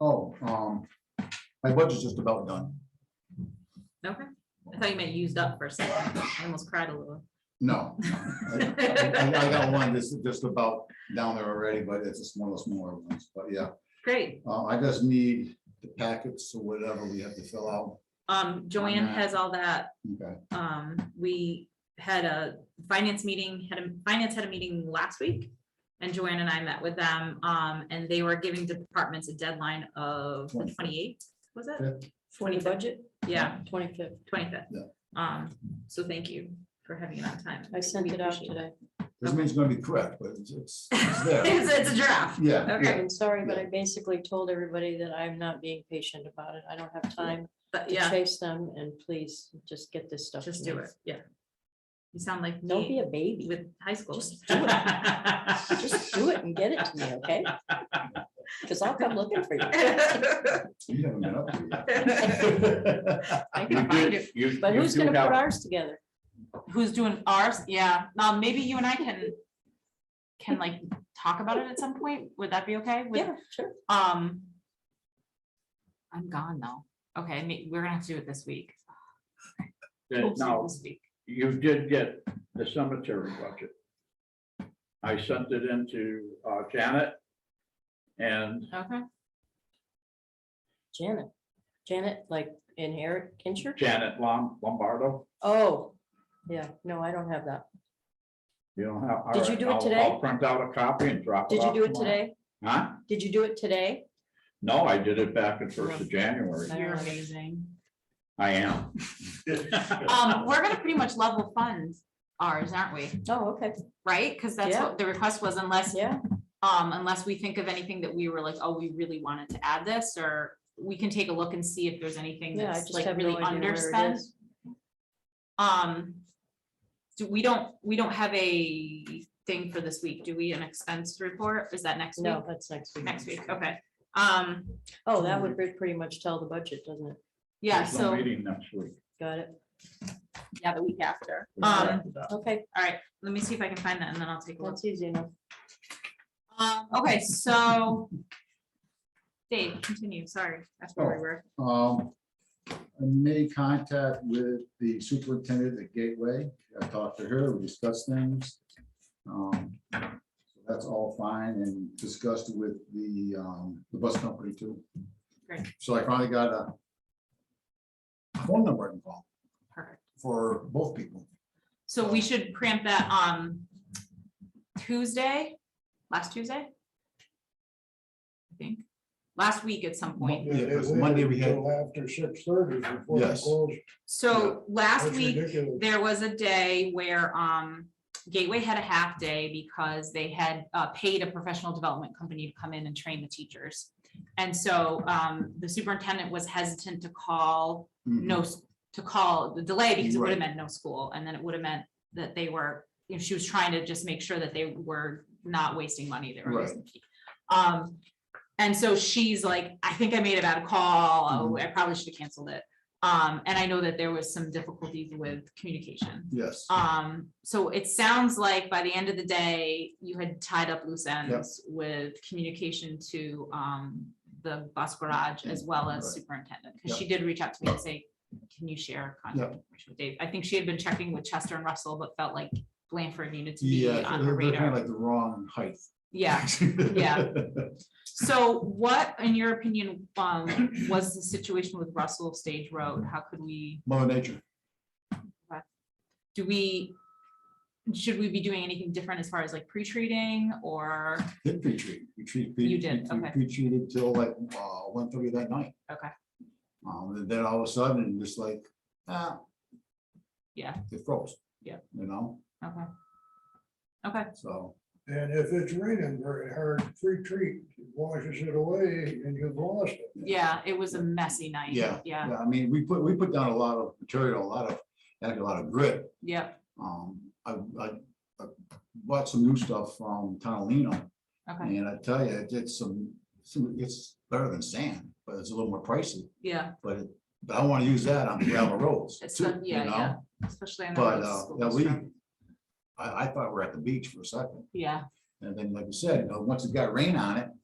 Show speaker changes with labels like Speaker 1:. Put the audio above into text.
Speaker 1: Oh, um, my budget's just about done.
Speaker 2: Okay, I thought you meant used up for a second. I almost cried a little.
Speaker 1: No. I I- I got one that's just about down there already, but it's just one of the smaller ones. But yeah,
Speaker 2: Great.
Speaker 1: uh, I just need the packets or whatever we have to fill out.
Speaker 2: Um, Joanne
Speaker 1: that.
Speaker 2: has all that.
Speaker 1: Okay,
Speaker 2: Um, we had a finance meeting, had a, finance had a meeting last week. And Joanne and I met with them, um, and they were giving departments a deadline of
Speaker 1: Twenty.
Speaker 2: twenty-eight, was it?
Speaker 1: Yeah.
Speaker 3: For the budget,
Speaker 2: Yeah,
Speaker 3: twenty-fifth.
Speaker 2: twenty-fifth.
Speaker 1: Yeah.
Speaker 2: Um, so thank you for having it on time.
Speaker 3: I sent
Speaker 2: We
Speaker 3: it out
Speaker 2: appreciate
Speaker 3: today.
Speaker 1: this means it's gonna be correct, but it's, it's it's there.
Speaker 2: It's, it's a draft.
Speaker 1: Yeah,
Speaker 2: Okay.
Speaker 1: yeah,
Speaker 3: I'm sorry, but I basically told everybody that I'm not being patient about it. I don't have time
Speaker 2: But
Speaker 3: to
Speaker 2: yeah,
Speaker 3: chase them and please just get this stuff. to
Speaker 2: just do
Speaker 3: me.
Speaker 2: it. Yeah. You sound like
Speaker 3: Don't be
Speaker 2: me
Speaker 3: a baby.
Speaker 2: with high school.
Speaker 3: Just do Just do it and get it to me, okay? Because I'll come looking for you.
Speaker 1: you haven't been up to
Speaker 2: I
Speaker 1: yet.
Speaker 2: can find it.
Speaker 3: But who's gonna put ours together?
Speaker 2: Who's doing ours? Yeah, um, maybe you and I can, can like talk about it at some point. Would that be okay? with-
Speaker 3: Yeah, sure.
Speaker 2: Um. I'm gone though. Okay, may- we're gonna have to do it this week.
Speaker 4: That now,
Speaker 2: This week.
Speaker 4: you did get the cemetery budget. I sent it into uh, Janet. And
Speaker 2: Okay,
Speaker 3: Janet. Janet, like inherit insurance?
Speaker 4: Janet Lom- Lombardo,
Speaker 3: Oh, yeah, no, I don't have that.
Speaker 4: you don't have. all
Speaker 3: Did you
Speaker 4: right,
Speaker 3: do it
Speaker 4: I'll-
Speaker 3: today?
Speaker 4: I'll print out a copy and drop it
Speaker 3: Did you
Speaker 4: off
Speaker 3: do it
Speaker 4: tomorrow.
Speaker 3: today?
Speaker 4: Huh?
Speaker 3: Did you do it today?
Speaker 4: No, I did it back at first of January.
Speaker 3: I
Speaker 2: you're
Speaker 3: don't-
Speaker 2: amazing.
Speaker 4: I am.
Speaker 2: Um, we're gonna pretty much level fund ours, aren't we?
Speaker 3: Oh, okay,
Speaker 2: Right? Because that's
Speaker 3: Yeah.
Speaker 2: what the request was unless
Speaker 3: yeah.
Speaker 2: Um, unless we think of anything that we were like, oh, we really wanted to add this, or we can take a look and see if there's anything
Speaker 3: Yeah, I
Speaker 2: that's
Speaker 3: just
Speaker 2: like
Speaker 3: have no
Speaker 2: really
Speaker 3: idea where it
Speaker 2: underspent.
Speaker 3: is.
Speaker 2: Um. Do, we don't, we don't have a thing for this week, do we? An expense report? Is that next week?
Speaker 3: No, that's next week.
Speaker 2: Next week, okay. Um,
Speaker 3: Oh, that would pre- pretty much tell the budget, doesn't it?
Speaker 2: yeah,
Speaker 4: There's no
Speaker 2: so,
Speaker 4: Meeting next week.
Speaker 3: Got it.
Speaker 2: yeah, the week after. Um,
Speaker 3: Okay,
Speaker 2: let me see if I can find that and then I'll take a look.
Speaker 3: that's easy enough.
Speaker 2: Um, okay, so. Dave, continue, sorry, that's where
Speaker 4: Oh.
Speaker 2: we were.
Speaker 1: Um, I made contact with the superintendent at Gateway. I talked to her, we discussed things. Um, so That's all fine and discussed with the, um, the bus company too.
Speaker 2: Great.
Speaker 1: So I finally got a phone number involved
Speaker 2: Perfect.
Speaker 1: for both people.
Speaker 2: So we should cramp that on Tuesday, last Tuesday? I think, last week at some point.
Speaker 1: Yeah, 'cause Monday we had-
Speaker 5: Until After six thirty before they
Speaker 1: Yes.
Speaker 5: close.
Speaker 2: So last
Speaker 5: That's
Speaker 2: week,
Speaker 5: ridiculous.
Speaker 2: there was a day where um Gateway had a half day because they had uh paid a professional development company to come in and train the teachers. And so um the superintendent was hesitant to call no, s- to call the delay because it would have
Speaker 1: Mm-hmm. Right.
Speaker 2: meant no school, and then it would have meant that they were, you know, she was trying to just make sure that they were not wasting money, they were
Speaker 1: Right.
Speaker 2: wasting. Um, and so she's like, I think I made a bad call,
Speaker 1: Mm-hmm.
Speaker 2: Oh, I probably should have canceled it. Um, and I know that there was some difficulties with communication.
Speaker 1: Mm-hmm. Yes,
Speaker 2: Um, so it sounds like by the end of the day, you had tied up loose ends with communication to, um, the bus garage as well as
Speaker 1: Right.
Speaker 2: superintendent, because she did reach out to me and say, can you share contact information with Dave? I think she had been checking with Chester and Russell, but felt like Blanford needed to be
Speaker 1: yeah,
Speaker 2: on her
Speaker 1: they're they're kind of
Speaker 2: radar.
Speaker 1: like the wrong height.
Speaker 2: Yeah, yeah. so what, in your opinion, um, was the situation with Russell Stage Road? How could we,
Speaker 1: Mother nature.
Speaker 2: do we, should we be doing anything different as far as like pre-treating or?
Speaker 1: Did pre-treat. We treat-
Speaker 2: You
Speaker 1: we-
Speaker 2: did,
Speaker 1: we- we
Speaker 2: okay.
Speaker 1: Pre-treated till like uh, one thirty that night.
Speaker 2: Okay.
Speaker 1: Um, and then all of a sudden, just like, ah.
Speaker 2: Yeah.
Speaker 1: It froze.
Speaker 2: Yeah.
Speaker 1: You know,
Speaker 2: Okay,
Speaker 1: so,
Speaker 5: And if it's raining very hard, free treat washes it away and you've lost it.
Speaker 2: yeah, it was a messy night.
Speaker 1: Yeah.
Speaker 2: Yeah,
Speaker 1: yeah, I mean, we put, we put down a lot of material, a lot of, actually a lot of grit.
Speaker 2: yeah,
Speaker 1: Um, I, I I bought some new stuff from Tonalino.
Speaker 2: okay,
Speaker 1: And I tell you, it did some, some, it's better than sand, but it's a little more pricey,
Speaker 2: yeah,
Speaker 1: but, it- but I want to use that on gravel roads.
Speaker 2: It's
Speaker 1: too,
Speaker 2: done-
Speaker 1: you
Speaker 2: yeah,
Speaker 1: know?
Speaker 2: yeah. especially on the
Speaker 1: But,
Speaker 2: roads
Speaker 1: uh,
Speaker 2: school
Speaker 1: yeah,
Speaker 2: bus
Speaker 1: we,
Speaker 2: route.
Speaker 1: I, I thought we were at the beach for a second,
Speaker 2: Yeah,
Speaker 1: and then, like you said, you know, once it got rain on it,